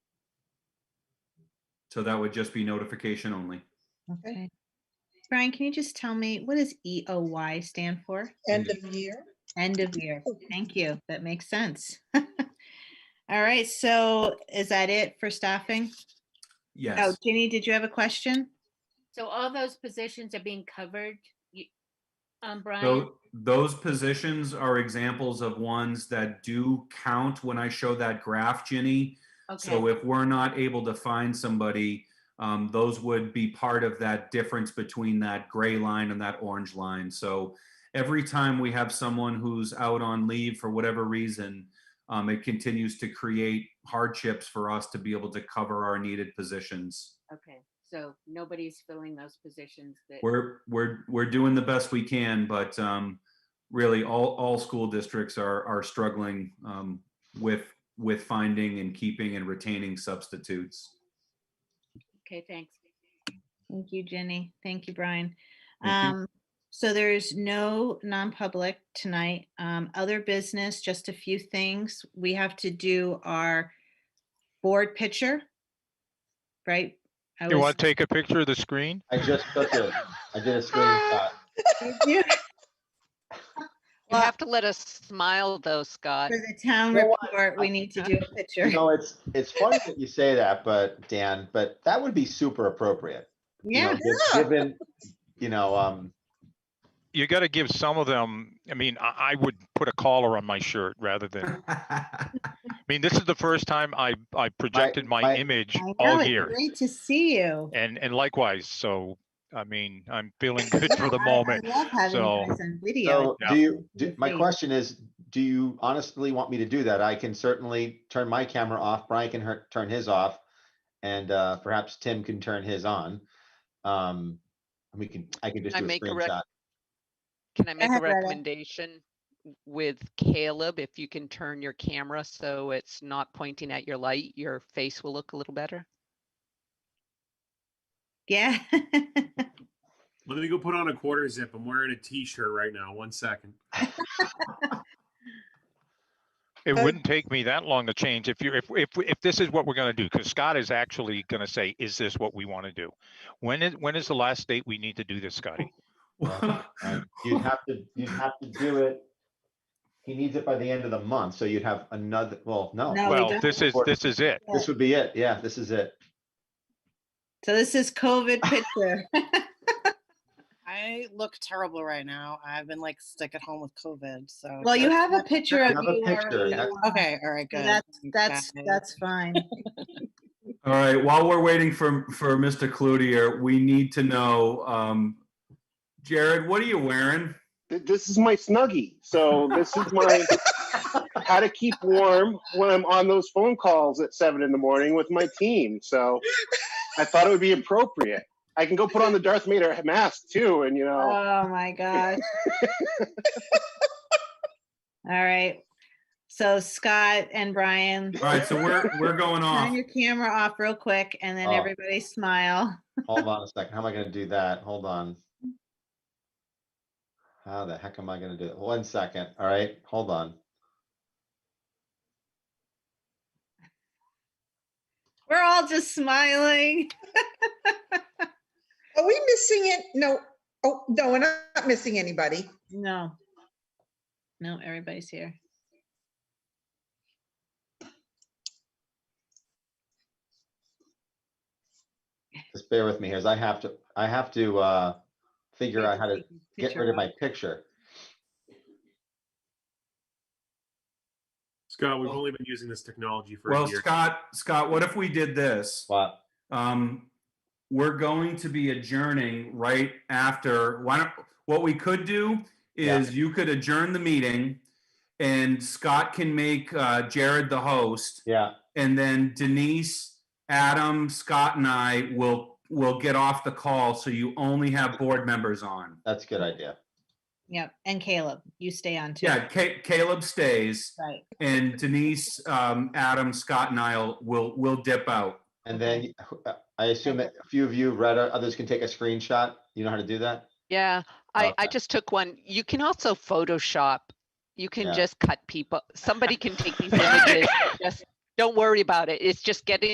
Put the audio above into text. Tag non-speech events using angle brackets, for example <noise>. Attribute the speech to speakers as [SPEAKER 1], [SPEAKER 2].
[SPEAKER 1] So that would just be notification only.
[SPEAKER 2] Okay.
[SPEAKER 3] Okay. Brian, can you just tell me, what does EOY stand for?
[SPEAKER 2] End of year.
[SPEAKER 3] End of year. Thank you. That makes sense. <laughs> All right, so is that it for staffing? Oh,
[SPEAKER 1] Yes,
[SPEAKER 3] Ginny, did you have a question?
[SPEAKER 4] So all those positions are being covered, you, um, Brian?
[SPEAKER 1] so those positions are examples of ones that do count when I show that graph, Ginny. So
[SPEAKER 4] Okay,
[SPEAKER 1] if we're not able to find somebody, um, those would be part of that difference between that gray line and that orange line. So every time we have someone who's out on leave for whatever reason, um, it continues to create hardships for us to be able to cover our needed positions.
[SPEAKER 4] okay, so nobody's filling those positions that,
[SPEAKER 1] We're, we're, we're doing the best we can, but, um, really all, all school districts are, are struggling, um, with, with finding and keeping and retaining substitutes.
[SPEAKER 4] okay, thanks.
[SPEAKER 3] Thank you, Jenny. Thank you, Brian.
[SPEAKER 1] Thank
[SPEAKER 3] Um, so there's no non-public tonight. Um, other business, just a few things. We have to do our board picture. Right? I
[SPEAKER 5] You
[SPEAKER 3] was-
[SPEAKER 5] want to take a picture of the screen?
[SPEAKER 6] I just took it. I did
[SPEAKER 7] <laughs>
[SPEAKER 6] a screenshot. <laughs>
[SPEAKER 3] Yeah,
[SPEAKER 7] You
[SPEAKER 3] Well-
[SPEAKER 7] have to let us smile though, Scott.
[SPEAKER 3] For the town
[SPEAKER 6] You know what?
[SPEAKER 3] report, we need to do a
[SPEAKER 5] <laughs>
[SPEAKER 3] picture.
[SPEAKER 6] You know, it's, it's funny that you say that, but Dan, but that would be super appropriate. you know,
[SPEAKER 3] Yeah,
[SPEAKER 6] just
[SPEAKER 2] Yeah.
[SPEAKER 6] Given, you know, um,
[SPEAKER 5] You gotta give some of them, I mean, I, I would put a collar on my shirt rather
[SPEAKER 3] Uh-huh.
[SPEAKER 5] than, I mean, this is the first time I, I projected my
[SPEAKER 6] my-
[SPEAKER 5] image
[SPEAKER 3] I know,
[SPEAKER 5] all
[SPEAKER 3] it's
[SPEAKER 5] year.
[SPEAKER 3] Great to see you.
[SPEAKER 5] And, and likewise, so, I mean, I'm feeling good for the
[SPEAKER 3] <laughs> I- I
[SPEAKER 5] moment.
[SPEAKER 3] love having you
[SPEAKER 5] so-
[SPEAKER 3] guys on video.
[SPEAKER 6] so do you, do-
[SPEAKER 3] Let's
[SPEAKER 6] my
[SPEAKER 3] see.
[SPEAKER 6] question is, do you honestly want me to do that? I can certainly turn my camera off. Brian can her- turn his off. And, uh, perhaps Tim can turn his on. Um, and we can, I can just
[SPEAKER 7] I
[SPEAKER 6] do a
[SPEAKER 7] make a rec-
[SPEAKER 6] screenshot.
[SPEAKER 7] Can I make a
[SPEAKER 3] ahead, Rhoda.
[SPEAKER 7] recommendation with Caleb? If you can turn your camera so it's not pointing at your light, your face will look a little better.
[SPEAKER 3] Yeah. <laughs>
[SPEAKER 8] Let me go put on a quarter zip. I'm wearing a t-shirt right now. One second.
[SPEAKER 5] It
[SPEAKER 2] Uh,
[SPEAKER 5] wouldn't take me that long to change if you, if, if, if this is what we're gonna do, because Scott is actually gonna say, is this what we want to do? When is, when is the last date we need to do this, Scotty?
[SPEAKER 6] Well, And You'd have to, you'd have to do it. He needs it by the end of the month, so you'd have another, well, no.
[SPEAKER 3] No, we
[SPEAKER 5] Well,
[SPEAKER 3] don't.
[SPEAKER 5] this is, this is it.
[SPEAKER 6] This would be it. Yeah, this is it.
[SPEAKER 3] So this is
[SPEAKER 5] <laughs>
[SPEAKER 3] COVID picture.
[SPEAKER 2] I look terrible right now. I've been like stuck at home with COVID, so.
[SPEAKER 3] Well, you have a picture of
[SPEAKER 6] have a
[SPEAKER 3] you.
[SPEAKER 6] picture,
[SPEAKER 3] already
[SPEAKER 6] that's-
[SPEAKER 3] on,
[SPEAKER 2] Okay, all right,
[SPEAKER 3] so
[SPEAKER 2] good.
[SPEAKER 3] That's,
[SPEAKER 2] Thanks,
[SPEAKER 3] that's,
[SPEAKER 2] guys.
[SPEAKER 3] that's fine.
[SPEAKER 1] All right, while we're waiting for, for Mr. Cloutier, we need to know, um, Jared, what are you wearing?
[SPEAKER 9] Th- this is my snuggie. So this is my how to keep warm when I'm on those phone calls at seven in the morning with my team. So I thought it would be appropriate. I can go put on the Darth Vader mask too, and you know,
[SPEAKER 3] Oh, my gosh. All right. So Scott and Brian,
[SPEAKER 1] All right, so we're, we're going
[SPEAKER 3] turn
[SPEAKER 1] off.
[SPEAKER 3] your camera off real quick and then
[SPEAKER 6] Oh.
[SPEAKER 3] everybody smile.
[SPEAKER 6] Hold on a second. How am I gonna do that? Hold on. How the heck am I gonna do it? One second. All right, hold on.
[SPEAKER 3] We're all just smiling.
[SPEAKER 2] Are we missing it? No, oh, no, we're not missing anybody.
[SPEAKER 3] No. No, everybody's here.
[SPEAKER 6] Just bear with me here, as I have to, I have to, uh, figure out how to get rid of my picture.
[SPEAKER 8] Scott, we've only been using this technology for
[SPEAKER 1] Well,
[SPEAKER 8] a year.
[SPEAKER 1] Scott, Scott, what if we did this?
[SPEAKER 6] But
[SPEAKER 1] Um, we're going to be adjourning right after, why don't, what we could do
[SPEAKER 6] Yeah.
[SPEAKER 1] is you could adjourn the meeting and Scott can make, uh, Jared the host.
[SPEAKER 6] yeah,
[SPEAKER 1] And then Denise, Adam, Scott and I will, will get off the call. So you only have board members on.
[SPEAKER 6] that's a good idea.
[SPEAKER 3] Yep. And Caleb, you stay on too.
[SPEAKER 1] Yeah, Ca- Caleb stays
[SPEAKER 3] Right.
[SPEAKER 1] and Denise, um, Adam, Scott and I'll will, will dip out.
[SPEAKER 6] And then uh, I assume that a few of you read, it, others can take a screenshot. You know how to do that?
[SPEAKER 7] Yeah, I, I
[SPEAKER 6] Okay.
[SPEAKER 7] just took one. You can also Photoshop. You
[SPEAKER 6] Yeah. <laughs>
[SPEAKER 7] can just cut people. Somebody can take these images. and Just Don't worry about it. It's just getting